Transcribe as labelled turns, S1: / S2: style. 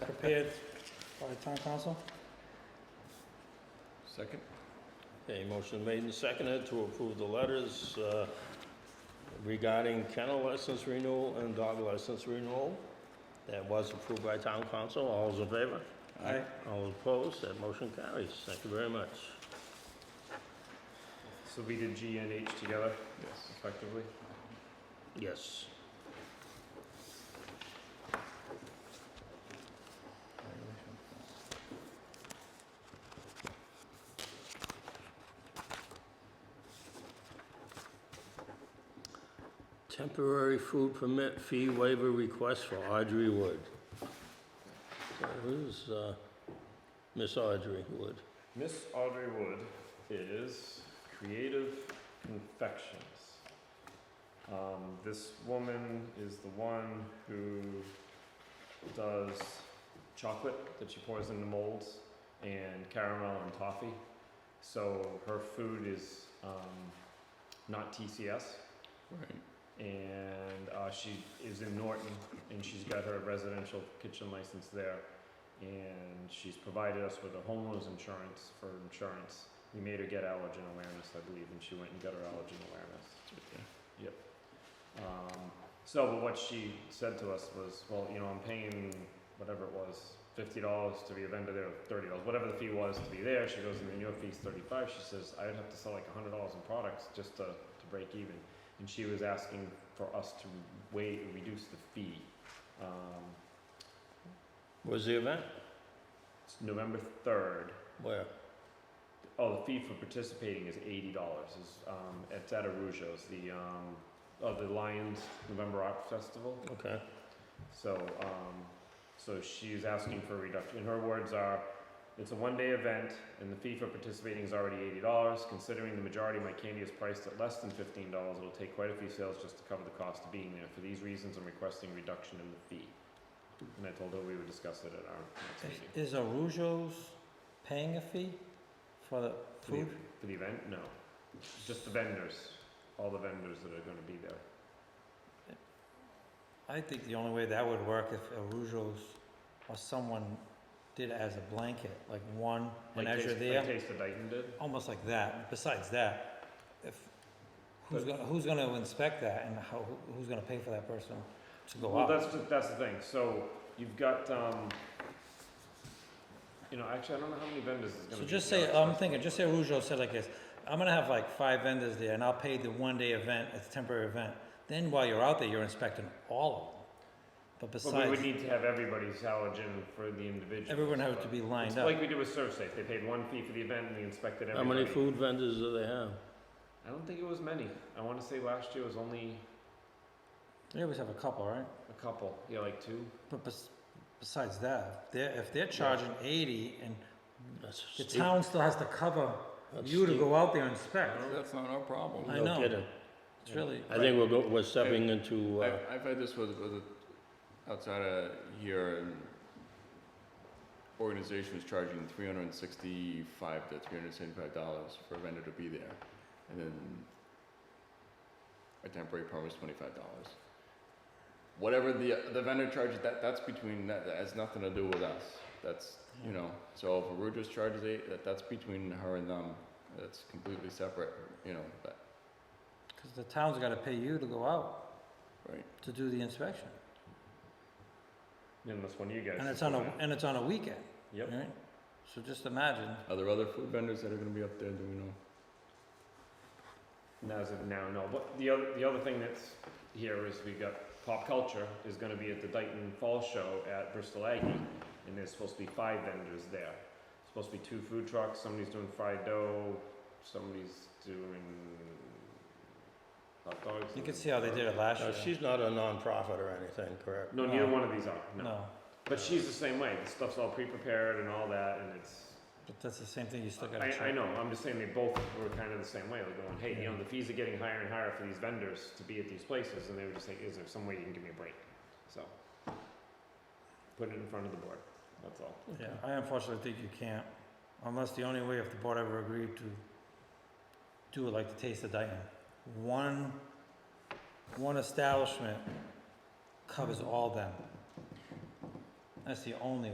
S1: prepared by the town council.
S2: Second?
S3: Okay, motion made and seconded to approve the letters uh, regarding kennel license renewal and dog license renewal. That was approved by town council. All those in favor?
S1: Aye.
S3: All opposed? That motion carries. Thank you very much.
S4: So we did G and H together
S2: Yes.
S4: effectively?
S3: Yes. Temporary food permit fee waiver request for Audrey Wood. So Who's uh, Miss Audrey Wood?
S4: Miss Audrey Wood is Creative Confections. Um, this woman is the one who does chocolate that she pours into molds and caramel and toffee. So her food is um, not TCS.
S2: Right.
S4: and uh, she is in Norton, and she's got her residential kitchen license there. And she's provided us with a homeowner's insurance for insurance. We made her get allergen awareness, I believe, and she went and got her allergen awareness. Um, so, but what she said to us was, well, you know, I'm paying whatever it was, fifty dollars to be a vendor there, thirty dollars, whatever the fee was to be there. She goes, and then your fee's thirty-five. She says, I'd have to sell like hundred dollars in products just to, to break even. And she was asking for us to wait, reduce the fee. Um,
S3: Was the event?
S4: it's November third.
S3: Where?
S4: Oh, the fee for participating is eighty dollars. Is um, it's at Arujo's, the um, oh, the Lions November Art Festival.
S3: Okay.
S4: So, um, so she's asking for a reduction. And her words are, it's a one-day event, and the fee for participating is already eighty dollars. Considering the majority of my candy is priced at less than fifteen dollars, it'll take quite a few sales just to cover the cost of being there. For these reasons, I'm requesting reduction in the fee. And I told her we would discuss it at our next meeting.
S1: Is- Is Arujo's paying a fee for the
S4: For the,
S1: food?
S4: for the event? No, just the vendors, all the vendors that are gonna be there.
S1: I think the only way that would work if Arujo's or someone did it as a blanket, like one, and
S4: Like
S1: as you're
S4: Taste-
S1: there,
S4: Like Taste of Dayton did.
S1: almost like that. Besides that, if, who's gonna, who's gonna inspect that and how, who- who's gonna pay for that person to go
S4: Well,
S1: out?
S4: that's, the- that's the thing, so you've got, um, you know, actually, I don't know how many vendors is gonna be.
S1: So
S4: at
S1: just
S4: the
S1: say,
S4: arts
S1: I'm
S4: festival.
S1: thinking, just say Arujo said like this, I'm gonna have like five vendors there and I'll pay the one-day event, it's a temporary event. Then while you're out there, you're inspecting all of them. But
S4: Well, we would
S1: besides,
S4: need to have everybody's allergen for the individual.
S1: everyone has to be lined up.
S4: Like we did with Surf Safe, they paid one fee for the event and they inspected
S3: How
S4: everybody.
S3: many food vendors do they have?
S4: I don't think it was many, I wanna say last year was only
S1: They always have a couple, right?
S4: a couple, yeah, like two.
S1: But bes- besides that, if they're, if they're charging eighty and
S3: That's
S1: the
S3: steep.
S1: town still has to cover
S3: That's
S1: you to
S3: steep.
S1: go out there and inspect,
S2: That's not our problem.
S1: I
S3: No
S1: know.
S3: kidding.
S1: it's really.
S3: I think we're, go- we're stepping into, uh,
S2: I've, I've had this with, with a- outside a year, and organization was charging three hundred and sixty-five to three hundred and seventy-five dollars for a vendor to be there, and then a temporary permit is twenty-five dollars. Whatever the, the vendor charges, that, that's between, that, that has nothing to do with us, that's, you know, so if Arudra's charges eight, that, that's between her and them, that's completely separate, you know, that,
S1: Cause the town's gotta pay you to go out
S2: right?
S1: to do the inspection.
S4: And this one you guys.
S1: And it's
S4: did,
S1: on a,
S4: right?
S1: and it's on a weekend,
S4: Yep.
S1: right? So just imagine,
S2: Are there other food vendors that are gonna be up there, do we know?
S4: And As of now, no. But the other, the other thing that's here is we got pop culture is going to be at the Dayton Fall Show at Bristol Aggie, and there's supposed to be five vendors there. Supposed to be two food trucks. Somebody's doing fried dough. Somebody's doing hot dogs.
S1: you can see how they did it last
S3: now,
S1: year.
S3: uh, she's not a nonprofit or anything, correct?
S4: No, neither one of these are. No.
S1: No,
S4: But she's the same way. The stuff's all pre-prepared and all that, and it's.
S1: but that's the same thing, you still gotta check.
S4: I, I know. I'm just saying they both were kind of the same way. They're going, hey, you know, the fees are getting higher and higher for these vendors to be at these places, and they were just like, is there some way you can give me a break? So, put it in front of the board. That's all.
S1: Yeah, I unfortunately think you can't, unless the only way if the board ever agreed to do it like the Taste of Dayton. One, one establishment covers all them. That's the only way.